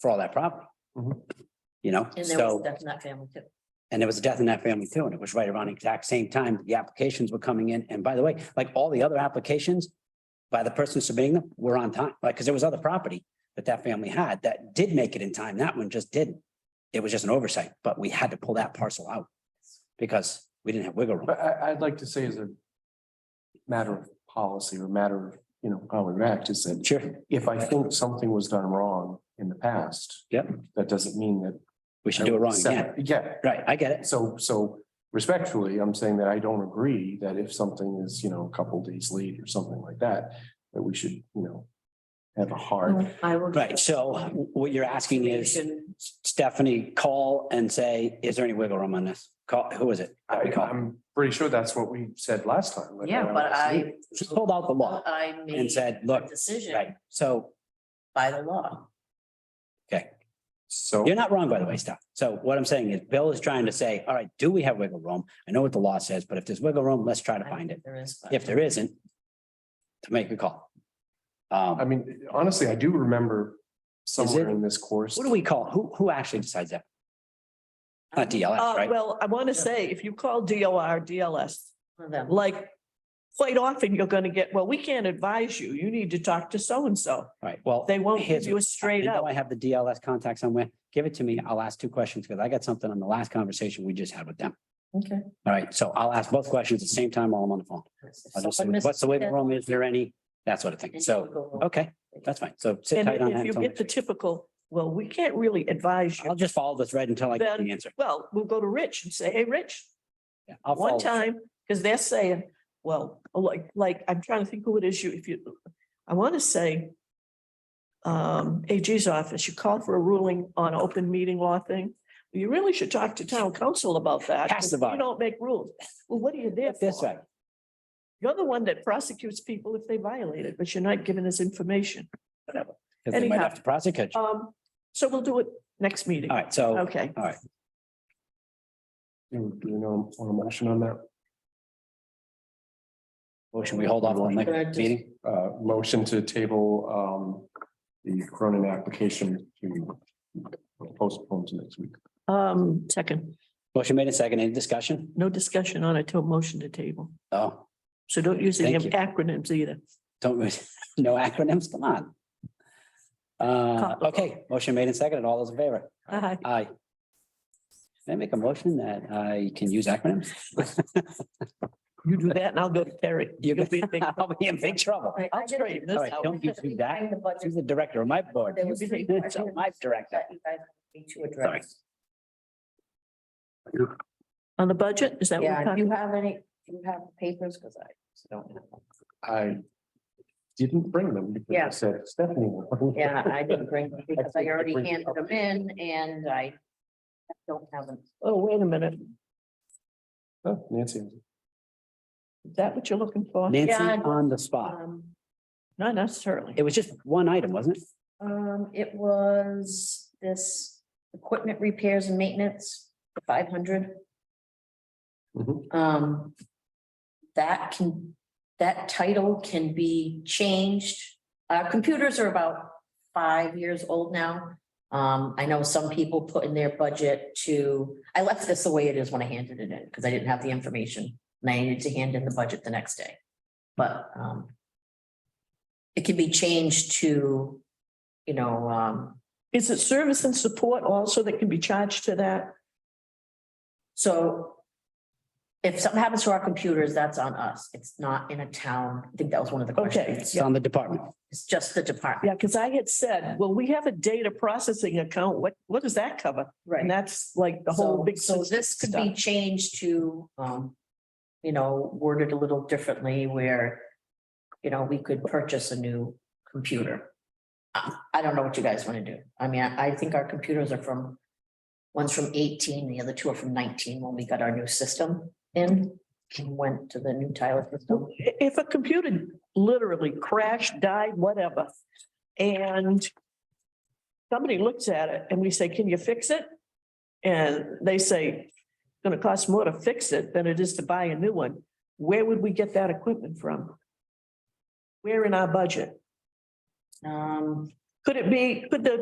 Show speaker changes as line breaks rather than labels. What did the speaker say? for all that property.
Mhm.
You know,
And there was
so,
death in that family too.
and there was a death in that family too, and it was right around the exact same time the applications were coming in. And by the way, like all the other applications, by the person submitting them, were on time, like, because there was other property that that family had that did make it in time. That one just didn't. It was just an oversight, but we had to pull that parcel out because we didn't have wiggle room.
But I, I'd like to say as a matter of policy or matter of, you know, how we act is that
Sure,
if I think something was done wrong in the past.
Yep.
That doesn't mean that.
we should do it wrong again.
Yeah,
Right, I get it.
so, so respectfully, I'm saying that I don't agree that if something is, you know, a couple days late or something like that, that we should, you know, have a hard,
I will.
Right, so what you're asking is
Should-
Stephanie call and say, is there any wiggle room on this? Call, who is it?
I, I'm pretty sure that's what we said last time. like,
Yeah,
uh,
but I.
She pulled out the law
I made.
and said,
a
look, right,
Decision
so
by the law.
So.
you're not wrong, by the way, Steph. So what I'm saying is Bill is trying to say, all right, do we have wiggle room? I know what the law says, but if there's wiggle room, let's try to
I don't
find
think
it.
There is. but-
If there isn't, to make a call.
I
Um,
mean, honestly, I do remember somewhere in this course.
what do we call, who, who actually decides that? Not DLS,
Uh,
right?
well, I want to say, if you call DOR, DLS,
One of them.
like, quite often you're going to get, well, we can't advise you. You need to talk to so-and-so.
Right, well.
They won't
here's
give you
what-
a straight
I know
up.
I have the DLS contact somewhere. Give it to me. I'll ask two questions because I got something on the last conversation we just had with them.
Okay.
All right, so I'll ask both questions at the same time while I'm on the phone. I'll just say, What's the wiggle room? Is there any? That sort of thing. So, okay, that's fine. So sit
And
tight on that.
if you
until
get
next
the
week.
typical, well, we can't really advise
I'll
you.
just follow this thread until I get
Then-
the answer.
Well, we'll go to Rich and say, hey, Rich,
Yeah, I'll
one
follow-
time, because they're saying, well, oh, like, like, I'm trying to think who it is you, if you, I want to say um, AG's office, you called for a ruling on open meeting law thing. You really should talk to town council about that. 'cause
Castabod.
You don't make rules. Well, what are you there
This
for?
way.
You're the one that prosecutes people if they violate it, but you're not giving us information.
Because they might
Anyhow.
have to prosecute. you.
Um, so we'll do it next meeting.
All right, so
Okay.
Do do you know, on a motion on that,
motion, we hold off on
Can I just-
next meeting.
uh, motion to table, um, the Cronin application to postpone to next week.
Um, second,
Motion made and second. Any discussion?
no discussion on it till motion to table.
Oh,
So don't use any
Thank you.
acronyms either.
don't, no acronyms, come on. Uh,
Comparable.
okay, motion made and second. All those in favor?
Aye.
Aye. Can I make a motion that I can use acronyms?
You do that and I'll go to Terry.
You're
You'll be in big-
I'll be in big trouble.
Right, I
I'll
did-
straighten
All
this
right,
out.
don't you do that.
Find the budget
She's the director of my board.
There was three
It's
questions.
My director.
that you guys need to address.
On the budget, is that what we're
Yeah, do
talking?
you have any, do you have papers? Because I just don't have. them.
I didn't bring them because
Yeah.
I said Stephanie. will.
Yeah, I didn't bring them because I
think I
already
bring-
handed them in and I don't have them.
Oh, wait a minute.
Oh, Nancy.
Is that what you're looking for?
Nancy
Yeah.
on the spot.
Um,
Not necessarily.
It was just one item, wasn't it?
um, it was this equipment repairs and maintenance, five hundred.
Mhm.
Um, that can, that title can be changed. Uh, computers are about five years old now. Um, I know some people put in their budget to, I left this the way it is when I handed it in, because I didn't have the information. And I needed to hand in the budget the next day. But, um, it can be changed to, you know, um,
Is it service and support also that can be charged to that?
So if something happens to our computers, that's on us. It's not in a town. I think that was one of the
Okay,
questions.
It's on the department.
It's just the department.
Yeah, because I had said, well, we have a data processing account. What, what does that cover? And that's like the whole
So-
big.
So this could be
stuff.
changed to, um, you know, worded a little differently where, you know, we could purchase a new computer. I, I don't know what you guys want to do. I mean, I, I think our computers are from, one's from eighteen, the other two are from nineteen when we got our new system in and went to the new Tyler system.
I- If a computer literally crashed, died, whatever, and somebody looks at it and we say, can you fix it? And they say, it's gonna cost more to fix it than it is to buy a new one. Where would we get that equipment from? Where in our budget?
Um,
Could it be, could the